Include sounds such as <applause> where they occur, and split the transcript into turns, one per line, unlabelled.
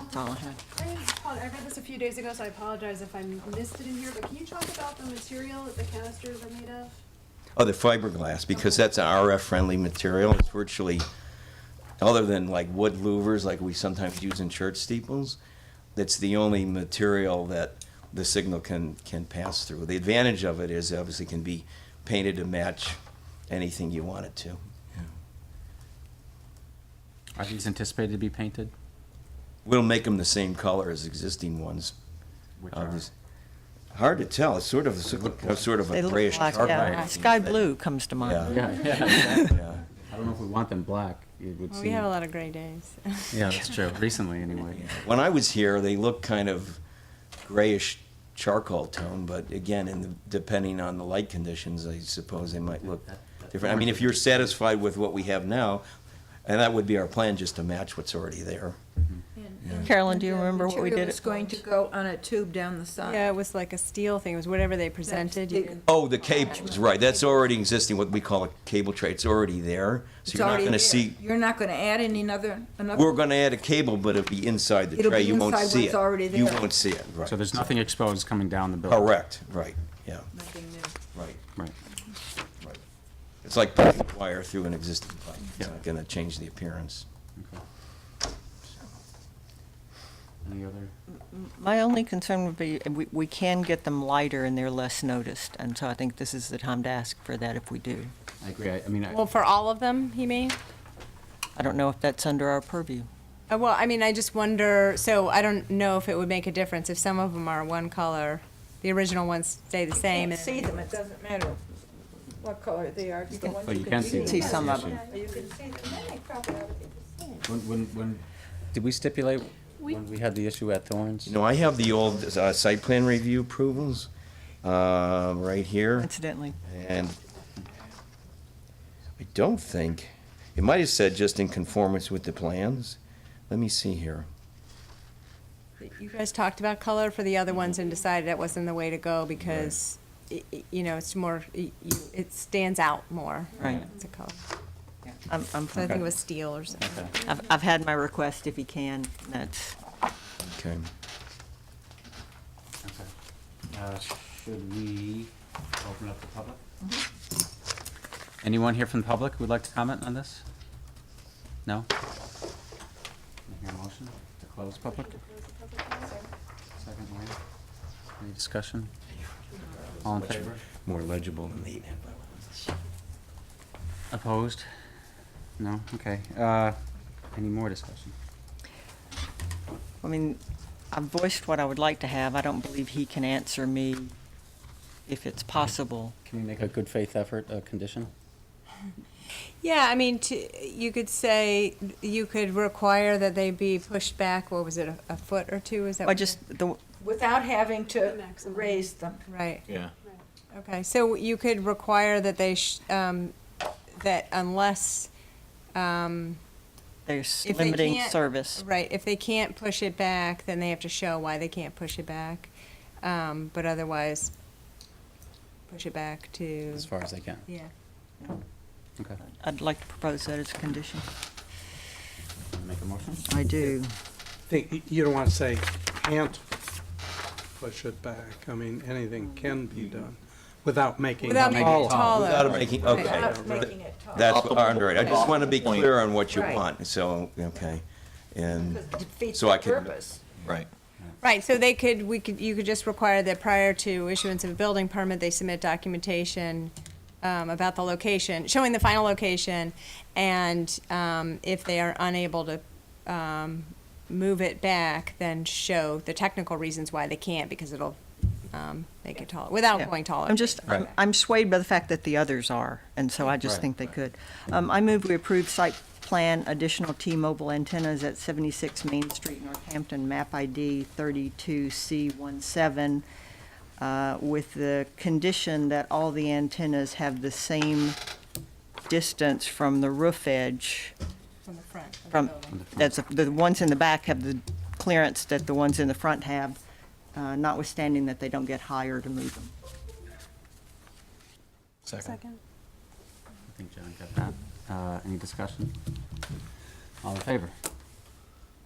That's all I had.
I apo- I read this a few days ago, so I apologize if I missed it in here, but can you talk about the material that the canisters are made of?
Oh, the fiberglass, because
Okay.
that's an RF-friendly material. It's virtually, other than like wood louvers like we sometimes use in church steeples, that's the only material that the signal can, can pass through. The advantage of it is obviously can be painted to match anything you want it to.
Are these anticipated to be painted?
We'll make them the same color as existing ones.
Which
Uh,
are-
this- Hard to tell. It's sort of, a- sort of
They
a
look uh,
grayish
black,
charcoal.
yeah.
thing,
Sky
but-
blue comes to mind.
Yeah.
Yeah, yeah, exactly.
Yeah.
I don't know if we want them black. It would
Well,
seem.
we have a lot of gray days.
Yeah, that's true. Recently, anyway.
When I was here, they looked kind of grayish charcoal tone, but again, in the, depending on the light conditions, I suppose they might look different. I mean, if you're satisfied with what we have now, and that would be our plan, just to match what's already there.
Carolyn, do you
And the
remember what we
material
did
is
it
going to go on a tube down the
<laughs>
side.
Yeah, it was like a steel thing. It was whatever they presented.
big.
you-
Oh, the cable, right, that's already existing, what we call a cable tray, it's already there.
It's
So you're not
already
gonna
there.
see,
You're not gonna add any other, another.
we're gonna add a cable, but it'll be inside the
It'll
tray,
be
you won't
inside
see it.
what's already
You
there.
won't see it, right.
So there's nothing exposed coming down the building?
Correct, right, yeah,
Nothing new.
right.
Right.
Right. It's like putting wire through an existing pipe. It's
Yeah.
not going to change the appearance.
Okay. Any other?
My only concern would be, uh, we, we can get them lighter and they're less noticed, and so I think this is the time to ask for that if we do.
I agree. I I mean, I-
Well, for all of them, he mean?
I don't know if that's under our purview.
Uh, well, I mean, I just wonder. So I don't know if it would make a difference if some of them are one color. The original ones stay the same. and-
Can't see them, it doesn't matter what color they are, it's the
Oh,
ones
well, you
you
can
can
see.
see.
them.
See some
That's
of
the
them.
You can see them, then they probably ought to be the same.
issue. When, when, when, did we stipulate when we had the issue at Thorns?
You know, I have the old uh, site plan review approvals uh, right here,
Incidentally,
and I don't think, it might have said just in conformance with the plans. Let me see here.
You guys talked about color for the other ones and decided that wasn't the way to go because, i- i- you know, it's more, y- you- it stands out more.
Right.
It's a color.
I'm, I'm,
So I think
Okay.
it was steel or something.
Okay.
I've, I've had my request if you can, that's,
Okay.
Okay. Uh, Should we open up the public? Anyone here from the public who would like to comment on this? No? Can I hear a motion to close public? Second, Lori. Any discussion? All in favor?
More legible than the.
Opposed? No? Okay. Uh, Any more discussion?
I mean, I've voiced what I would like to have, I don't believe he can answer me if it's possible.
Can we make a good faith effort, a condition?
Yeah, I mean, to, you could say, you could require that they be pushed back, what was it, a, a foot or two, is that?
I
what you-
just, the,
Without having
The
to
maximum.
raise them.
Right,
Yeah.
okay, so you could require that they, sh- um, that unless, um,
there's
If they
limiting
can't-
service.
Right, if they can't push it back, then they have to show why they can't push it back. Um, but otherwise, push it back to,
As far as I can.
yeah.
Okay.
I'd like to propose that as a condition.
Wanna Make a motion?
I do.
think, you don't want to say can't push it back. I mean, anything can be done without making it
Without making it taller.
Without making, okay.
Without making it tall.
That's, all right, I just want to be
Point.
clear on what you
Right.
want, so, okay. And,
Because it defeats
So
the
I could-
purpose.
Right.
Right, so they could, we could, you could just require that prior to issuance of a building permit, they submit documentation um, about the location, showing the final location, and um, if they are unable to um, move it back, then show the technical reasons why they can't, because it'll um, make it taller, without
Yeah.
going taller.
I'm just, I'm-
Right.
I'm swayed by the fact that the others are, and so I just
Right.
think they could. Um, I move we approve site plan additional T-Mobile antennas at 76 Main Street, Northampton, map ID 32C17, uh, with the condition that all the antennas have the same distance from the roof edge,
From the front of the
from,
building.
that's, the ones in the back have the clearance that the ones in the front have, uh, notwithstanding that they don't get higher to move them.
Second.
I think John got that. Uh, Any discussion? All in favor?